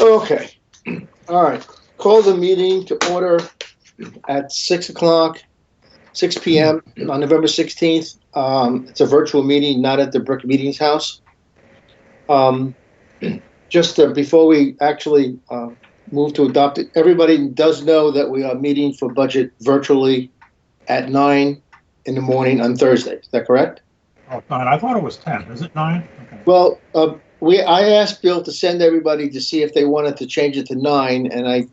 Okay, all right. Call the meeting to order at 6 o'clock, 6 PM on November 16th. Um, It's a virtual meeting, not at the Brick Meetings House. Um, Just uh, before we actually uh, move to adopt it, everybody does know that we are meeting for budget virtually at 9 in the morning on Thursday. Is that correct? Oh, nine. I thought it was 10. Is it nine? Okay. Well, uh, we, I asked Bill to send everybody to see if they wanted to change it to nine, and I,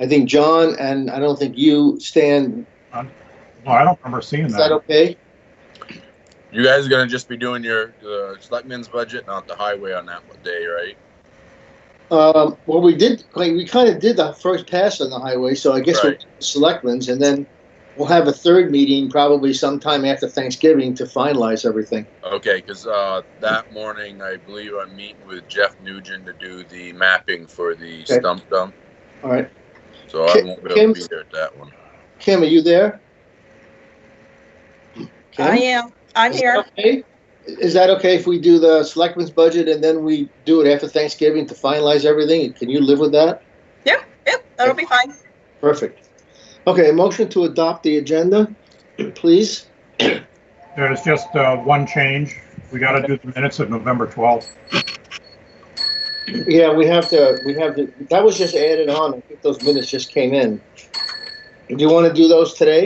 I think John and I don't think you, Stan, Well, I don't remember seeing is that that. okay? You guys are gonna just be doing your uh, selectmen's budget, not the highway on that one day, right? Um, well, we did, like, we kind of did the first pass on the highway, so I guess we'll Right. selectmen's, and then we'll have a third meeting probably sometime after Thanksgiving to finalize everything. Okay, because uh, that morning I believe I'm meeting with Jeff Nugent to do the mapping for the Okay. stump dump, All right, so I Kim- won't be able to be Kim's- there at that one. Kim, are you there? Kim? I am, I'm Is here. that okay? Is that okay if we do the selectmen's budget and then we do it after Thanksgiving to finalize everything? Can you live with that? Yep, that'll be fine. Perfect. Okay, motion to adopt the agenda, please. There's just uh, one change. We got to do the minutes of November 12th. Yeah, we have to, we have to, that was just added on. I think those minutes just came in. Do you want to do those today?